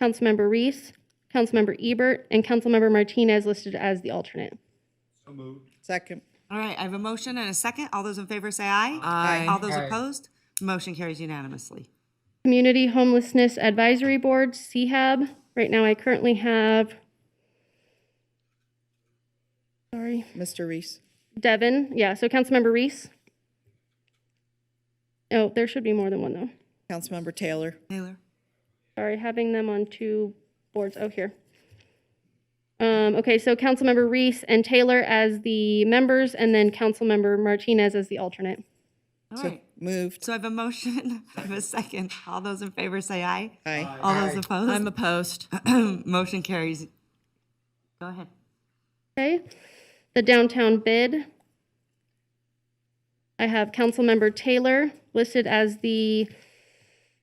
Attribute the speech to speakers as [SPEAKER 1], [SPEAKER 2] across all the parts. [SPEAKER 1] Councilmember Reese, Councilmember Ebert, and Councilmember Martinez listed as the alternate.
[SPEAKER 2] So moved.
[SPEAKER 3] Second.
[SPEAKER 4] All right, I have a motion and a second. All those in favor say aye.
[SPEAKER 3] Aye.
[SPEAKER 4] All those opposed? Motion carries unanimously.
[SPEAKER 1] Community Homelessness Advisory Board, CHAB. Right now, I currently have, sorry,
[SPEAKER 3] Mr. Reese.
[SPEAKER 1] Devon, yeah, so Councilmember Reese. Oh, there should be more than one, though.
[SPEAKER 3] Councilmember Taylor.
[SPEAKER 4] Taylor?
[SPEAKER 1] Sorry, having them on two boards, oh, here. Um, okay, so Councilmember Reese and Taylor as the members, and then Councilmember Martinez as the alternate.
[SPEAKER 4] All
[SPEAKER 3] So
[SPEAKER 4] right.
[SPEAKER 3] Moved.
[SPEAKER 4] So I have a motion, I have a second. All those in favor say aye.
[SPEAKER 3] Aye.
[SPEAKER 4] All those opposed?
[SPEAKER 5] I'm opposed.
[SPEAKER 4] Motion carries. Go ahead.
[SPEAKER 1] Okay, the downtown bid. I have Councilmember Taylor listed as the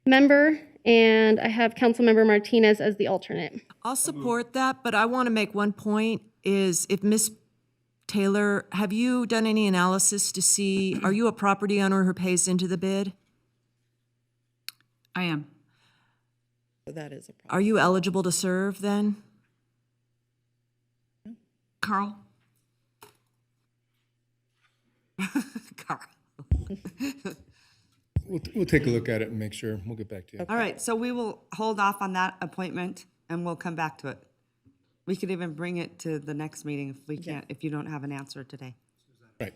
[SPEAKER 1] member, and I have Councilmember Martinez as the alternate.
[SPEAKER 5] I'll support that, but I want to make one point is if Miss Taylor, have you done any analysis to see, are you a property owner who pays into the bid?
[SPEAKER 6] I am.
[SPEAKER 3] So That is a problem.
[SPEAKER 5] Are you eligible to serve then?
[SPEAKER 6] Carl?
[SPEAKER 4] Carl.
[SPEAKER 7] We'll, we'll take a look at it and make sure. We'll get back to you.
[SPEAKER 4] All right, so we will hold off on that appointment and we'll come back to it. We could even bring it to the next meeting if we can't, if you don't have an answer today.
[SPEAKER 7] Right.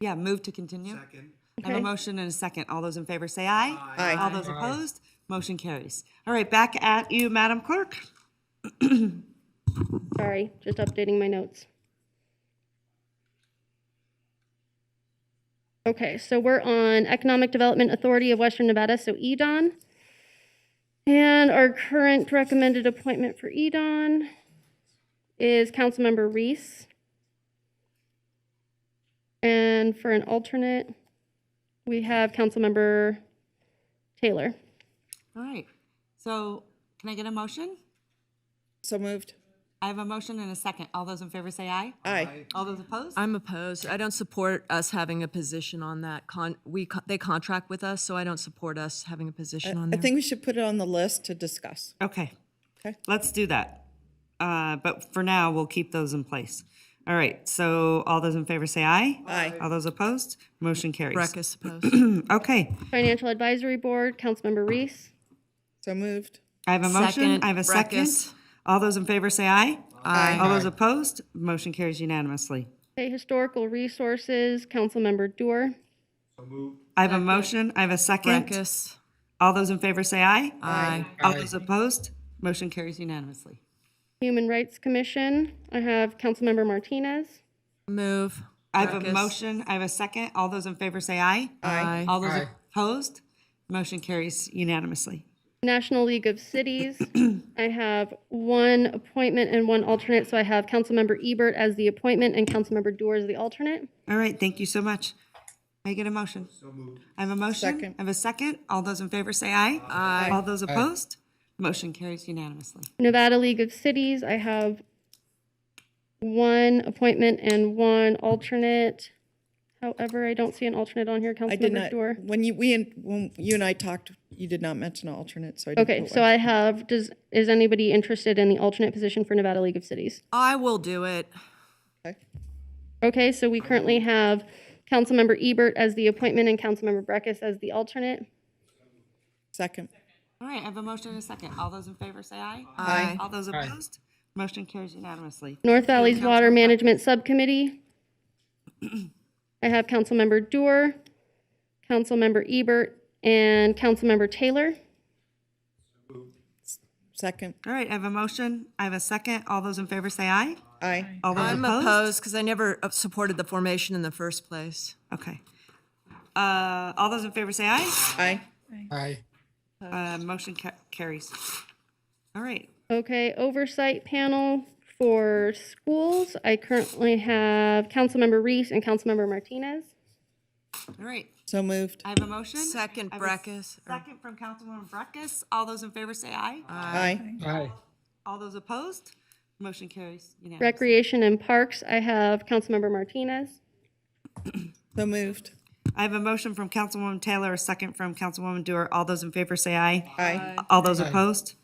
[SPEAKER 4] Yeah, move to continue.
[SPEAKER 2] Second.
[SPEAKER 4] I have a motion and a second. All those in favor say aye.
[SPEAKER 3] Aye.
[SPEAKER 4] All those opposed, motion carries. All right, back at you, Madam Clerk.
[SPEAKER 1] Sorry, just updating my notes. Okay, so we're on Economic Development Authority of Western Nevada, so EDON. And our current recommended appointment for EDON is Councilmember Reese. And for an alternate, we have Councilmember Taylor.
[SPEAKER 4] All right, so can I get a motion?
[SPEAKER 3] So moved.
[SPEAKER 4] I have a motion and a second. All those in favor say aye.
[SPEAKER 3] Aye.
[SPEAKER 4] All those opposed?
[SPEAKER 5] I'm opposed. I don't support us having a position on that. Con, we, co- they contract with us, so I don't support us having a position on
[SPEAKER 3] I
[SPEAKER 5] there.
[SPEAKER 3] think we should put it on the list to discuss.
[SPEAKER 4] Okay.
[SPEAKER 3] Okay.
[SPEAKER 4] Let's do that. Uh, But for now, we'll keep those in place. All right, so all those in favor say aye.
[SPEAKER 3] Aye.
[SPEAKER 4] All those opposed, motion carries.
[SPEAKER 5] Breck is opposed.
[SPEAKER 4] Okay,
[SPEAKER 1] Financial Advisory Board, Councilmember Reese.
[SPEAKER 3] So moved.
[SPEAKER 4] I have a motion,
[SPEAKER 5] Second,
[SPEAKER 4] I have a second.
[SPEAKER 5] Breckus.
[SPEAKER 4] All those in favor say aye.
[SPEAKER 5] Aye.
[SPEAKER 4] All those opposed, motion carries unanimously.
[SPEAKER 1] Okay, Historical Resources, Councilmember Dewar.
[SPEAKER 2] So moved.
[SPEAKER 4] I have a motion, I have a second.
[SPEAKER 5] Breckus.
[SPEAKER 4] All those in favor say aye.
[SPEAKER 5] Aye.
[SPEAKER 4] All those opposed, motion carries unanimously.
[SPEAKER 1] Human Rights Commission, I have Councilmember Martinez.
[SPEAKER 5] Move.
[SPEAKER 4] I have a
[SPEAKER 5] Breckus.
[SPEAKER 4] motion, I have a second. All those in favor say aye.
[SPEAKER 5] Aye.
[SPEAKER 4] All those opposed, motion carries unanimously.
[SPEAKER 1] National League of Cities, I have one appointment and one alternate, so I have Councilmember Ebert as the appointment and Councilmember Dewar as the alternate.
[SPEAKER 4] All right, thank you so much. May I get a motion?
[SPEAKER 2] So moved.
[SPEAKER 4] I have a motion.
[SPEAKER 3] Second.
[SPEAKER 4] I have a second. All those in favor say aye. Aye. All those opposed? Motion carries unanimously.
[SPEAKER 1] Nevada League of Cities, I have one appointment and one alternate. However, I don't see an alternate on here,
[SPEAKER 3] I did
[SPEAKER 1] Councilmember
[SPEAKER 3] not,
[SPEAKER 1] Dewar.
[SPEAKER 3] when you, we, and- when you and I talked, you did not mention an alternate, so I didn't.
[SPEAKER 1] Okay,
[SPEAKER 3] put
[SPEAKER 1] so
[SPEAKER 3] one.
[SPEAKER 1] I have, does, is anybody interested in the alternate position for Nevada League of Cities?
[SPEAKER 5] I will do it.
[SPEAKER 3] Okay.
[SPEAKER 1] Okay, so we currently have Councilmember Ebert as the appointment and Councilmember Breckus as the alternate.
[SPEAKER 3] Second.
[SPEAKER 4] All right, I have a motion and a second. All those in favor say aye.
[SPEAKER 5] Aye.
[SPEAKER 4] All those opposed? Motion carries unanimously.
[SPEAKER 1] North Valley's Water Management Subcommittee. I have Councilmember Dewar, Councilmember Ebert, and Councilmember Taylor.
[SPEAKER 3] Second.
[SPEAKER 4] All right, I have a motion. I have a second. All those in favor say aye.
[SPEAKER 3] Aye.
[SPEAKER 4] All those
[SPEAKER 5] I'm
[SPEAKER 4] opposed?
[SPEAKER 5] opposed because I never uh, supported the formation in the first place.
[SPEAKER 4] Okay. Uh, all those in favor say aye.
[SPEAKER 3] Aye.
[SPEAKER 2] Aye.
[SPEAKER 4] Uh, motion ca- carries. All right.
[SPEAKER 1] Okay, Oversight Panel for Schools. I currently have Councilmember Reese and Councilmember Martinez.
[SPEAKER 4] All right.
[SPEAKER 3] So moved.
[SPEAKER 4] I have a motion.
[SPEAKER 5] Second,
[SPEAKER 4] I have a s-
[SPEAKER 5] Breckus, or-
[SPEAKER 4] Second from Councilwoman Breckus. All those in favor say aye.
[SPEAKER 3] Aye.
[SPEAKER 2] Aye.
[SPEAKER 4] All those opposed? Motion carries unanimously.
[SPEAKER 1] Recreation and Parks, I have Councilmember Martinez.
[SPEAKER 3] So moved.
[SPEAKER 4] I have a motion from Councilwoman Taylor, a second from Councilwoman Dewar. All those in favor say aye.
[SPEAKER 3] Aye.
[SPEAKER 4] All those opposed?